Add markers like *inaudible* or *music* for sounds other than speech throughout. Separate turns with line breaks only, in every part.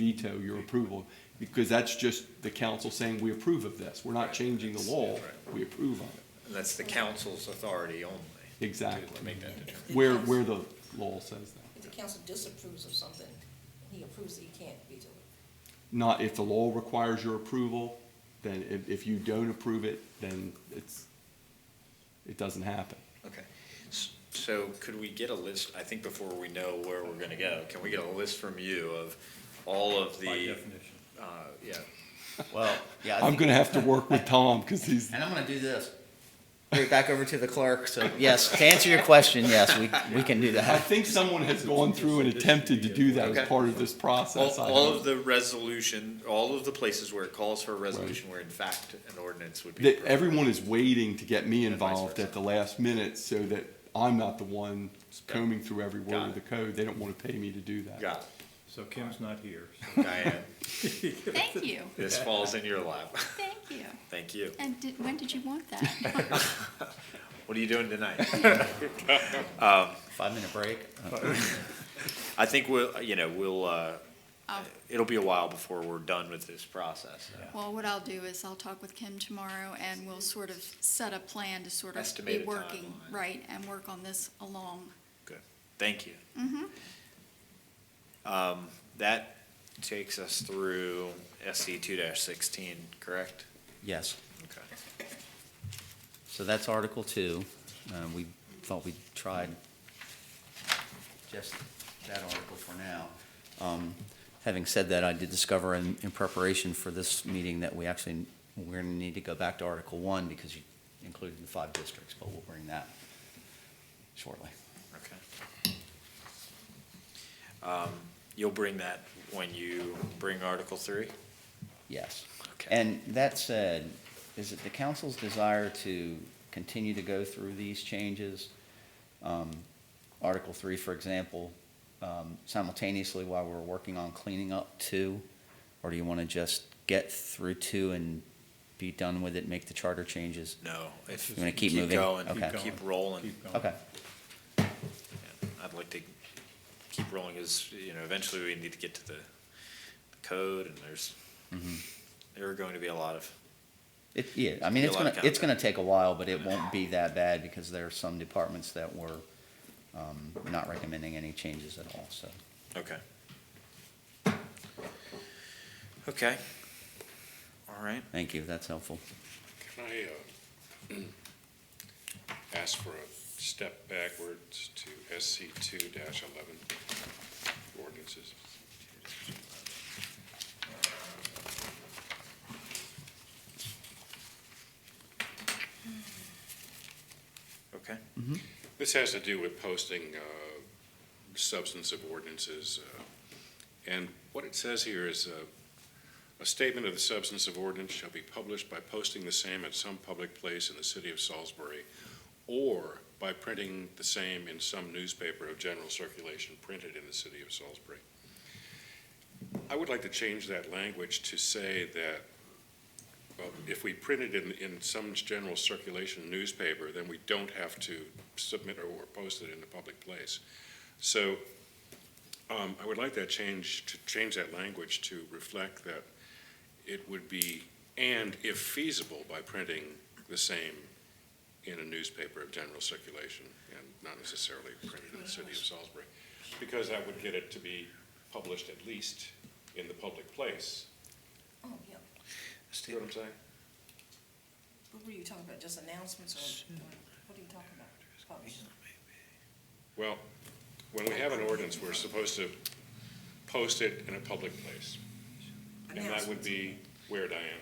veto your approval, because that's just the council saying, we approve of this. We're not
Right.
changing the
That's-
law,
that's right.
we approve of it.
And that's the council's authority only. To
Exactly.
make that determination.
Where, where the law says that.
If the council disapproves of something, he approves it, he can't veto it.
Not if the law requires your approval, then if, if you don't approve it, then it's, it doesn't happen.
Okay. S- So could we get a list, I think before we know where we're gonna go, can we get a list from you of all of the, uh, yeah,
Well, yeah. I
I'm
think-
gonna have
*laughs*
to work with Tom, because he's,
And I'm gonna do this. Put it back over to the clerk, *laughs* so, yes, to answer your question, yes, we, we can do
I
that.
think someone has gone through and attempted to do that
Okay.
as part of this
all,
process. I
all
hope.
of the resolution, all of the places where it calls for a resolution where in fact an ordinance would be.
that
appropriate.
everyone is waiting to get me
And vice
involved
versa.
at the last minute so that I'm not the one combing through every
Got
word of
it.
the code. They don't want to pay me to do that.
Got
So Kim's not here.
it. Diane,
Thank you,
this falls in your lap.
thank you.
Thank you.
And did, when did you want that?
*laughs* What are you doing tonight?
Five-minute break.
I think we'll, you know, we'll, uh,
I'll-
it'll be a while before we're done with this process.
Well, what I'll do is I'll talk with Kim tomorrow and we'll sort of set a plan to sort of be
Estimated
working,
timeline.
right, and work on this along.
Thank you. Um, That takes us through SC two sixteen, correct?
Yes,
Okay.
so that's Article Two. Um, we thought we tried just that article for now. Um, having said that, I did discover in, in preparation for this meeting that we actually, we're gonna need to go back to Article One because you included the five districts, but we'll bring that shortly.
Okay. Um, You'll bring that when you bring Article three?
Yes.
Okay.
And that said, is it the council's desire to continue to go through these changes? Um, Article three, for example, um, simultaneously while we're working on cleaning up two? Or do you want to just get through two and be done with it, make the charter changes?
No. If
You wanna keep moving?
going,
Okay.
Keep rolling.
Keep going.
Okay,
Yeah, I'd like to keep rolling as, you know, eventually we need to get to the the code and there's,
Mm-hmm.
there are going to be a lot of
it, yeah, I mean,
Be a
it's
lot of
gonna, it's
content.
gonna take a while, but it won't be that bad because there are some departments that were, um, not recommending any changes at all, so.
Okay. Okay. All right.
Thank you, that's helpful.
Can I uh, *clears throat* ask for a step backwards to SC two eleven ordinances?
Okay.
This has to do with posting uh, substance of ordinances. uh, And what it says here is, uh, "A statement of the substance of ordinance shall be published by posting the same at some public place in the city of Salisbury or by printing the same in some newspaper of general circulation printed in the city of Salisbury." I would like to change that language to say that well, if we print it in, in some general circulation newspaper, then we don't have to submit or- or post it in a public place. So um, I would like that change, to change that language to reflect that it would be, and if feasible, by printing the same in a newspaper of general circulation and not necessarily printed in the city of Salisbury. Because that would get it to be published at least in the public place.
Oh, yeah.
See what I'm saying?
What were you talking about, just announcements or, what are you talking about? Publish.
Well, when we have an ordinance, we're supposed to post it in a public place. And that would be where, Diane?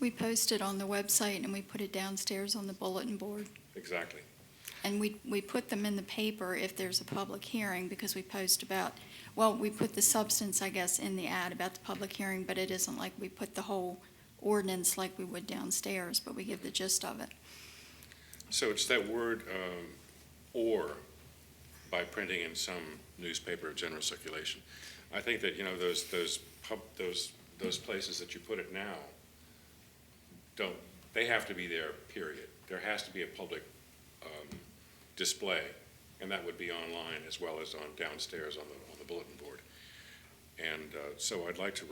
We post it on the website and we put it downstairs on the bulletin board.
Exactly.
And we, we put them in the paper if there's a public hearing because we post about, well, we put the substance, I guess, in the ad about the public hearing, but it isn't like we put the whole ordinance like we would downstairs, but we give the gist of it.
So it's that word, um, or by printing in some newspaper of general circulation. I think that, you know, those, those pub, those, those places that you put it now don't, they have to be there, period. There has to be a public, um, display, and that would be online as well as on downstairs on the, on the bulletin board. And uh, so I'd like to